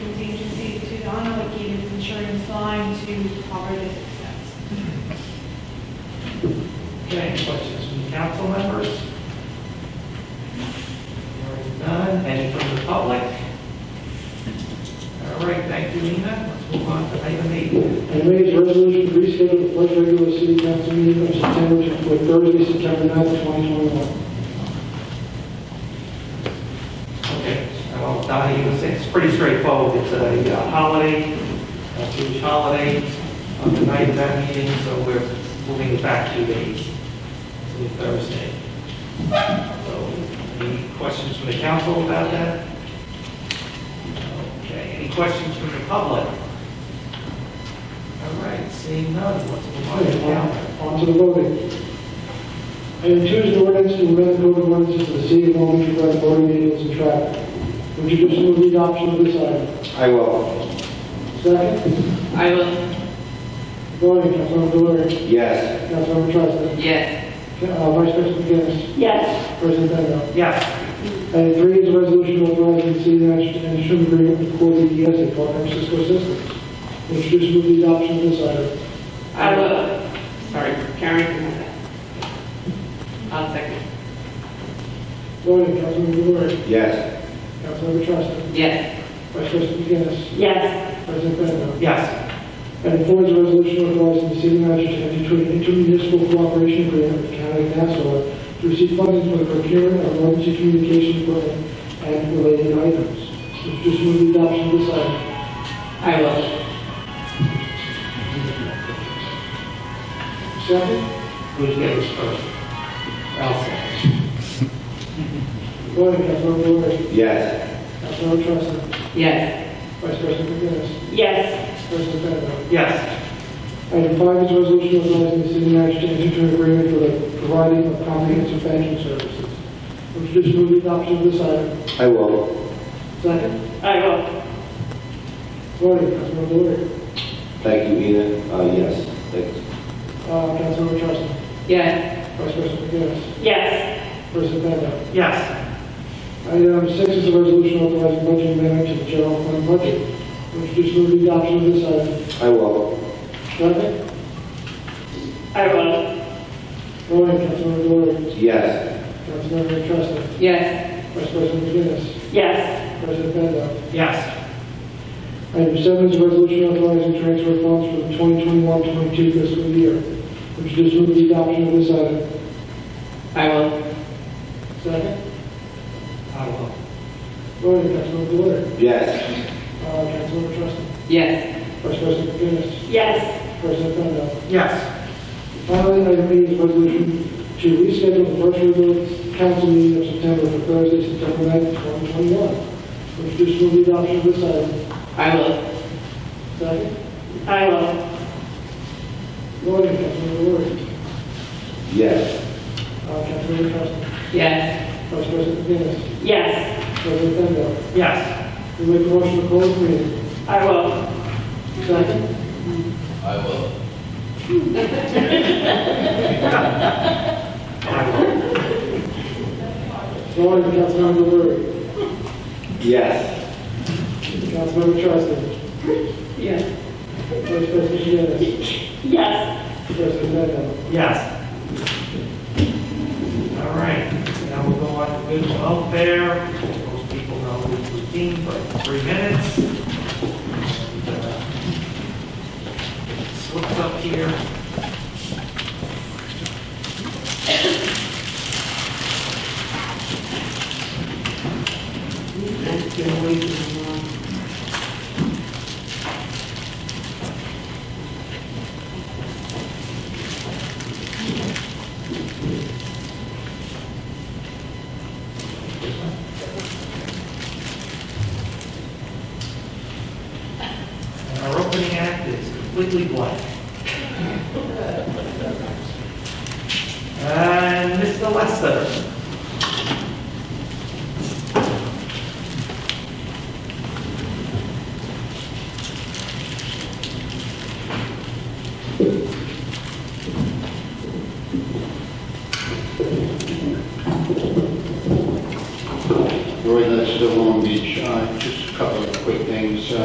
to Alberta's success. Okay, any questions from the council members? Hearing none, any from the public? All right, thank you, Nina. Let's move on to item eight. Item eight is a resolution to reschedule the first regular city council meeting of September to for Thursday, September 9th, 2021. Okay, well, Donnie, it's- it's pretty straightforward. It's a uh, holiday, a huge holiday on the night of that meeting, so we're moving it back to the to Thursday. So, any questions from the council about that? Okay, any questions from the public? All right, seeing none, let's move on to the calendar. Okay, On to the voting. Item two is an ordinance to amend the code of ordinances of the city of Long Beach regarding voting meetings and traffic. Would you consider the adoption of this item? I will. Second, I will, voting, Councilmember Delory, Yes. Councilmember Trastan, yes, uh, Vice President McGinnis, Yes, President Bendo. Yes, Item three is a resolution authorizing the city manager to enter an agreement with Core DES, a partner of Cisco Systems. Would you consider the adoption of this item? I will. sorry. Karen can have that. I'll second. Voting, Councilmember Delory, Yes. Councilmember Trastan, Yes, Vice President McGinnis, yes, President Bendo. Yes, Item four is a resolution authorizing the city manager to enter into an intermunicipal cooperation agreement with the County of Nassau to receive funding for the procurement of emergency communication equipment and related items. Would you just move the adoption of this item? I will. Second, who's getting first? I'll say. voting, Councilmember Delory, Yes. Councilmember Trastan, Yes, Vice President McGinnis, yes, President Bendo. Yes, Item five is a resolution authorizing the city manager to enter into an agreement for the providing of comprehensive banking services. Would you just move the adoption of this item? I will. Second. I will. Voting, Councilmember Delory. Thank you, Nina. Uh, yes. Thank you. Uh, Councilmember Trastan. yes, Vice President McGinnis. yes, President Bendo. yes, Item six is a resolution authorizing budget amendment to the general fund budget. Would you just move the adoption of this item? I will. Second. I will. Voting, Councilmember Delory. Yes. Councilmember Trastan. yes, Vice President McGinnis. Yes, President Bendo. yes. Item seven is a resolution authorizing transfer of funds for the 2021-22 fiscal year. Would you just move the adoption of this item? I will. Second. I will. Voting, Councilmember Delory. Yes. Uh, Councilmember Trustin. Yes, Vice President McGinnis. yes, President Bendo. Yes, Finally, item eight is a resolution to reschedule the first regular council meeting of September for Thursday, September 9th, 2021. Would you just move the adoption of this item? I will. Second. I will. Voting, Councilmember Delory. Yes. Uh, Councilmember Trustin. Yes, Vice President McGinnis. Yes, President Bendo. yes, We make a motion to close the meeting. I will. Second? I will. I will. Voting, Councilmember Lurie. Yes. Councilmember Trastan. yes. Vice President Jimenez. Yes. President Bendo. Yes. All right, now we'll go on to good welfare. Most people know this routine, but three minutes. Slips up here. Get away from the lawn. And our opening act is completely blank. And Mr. Lester.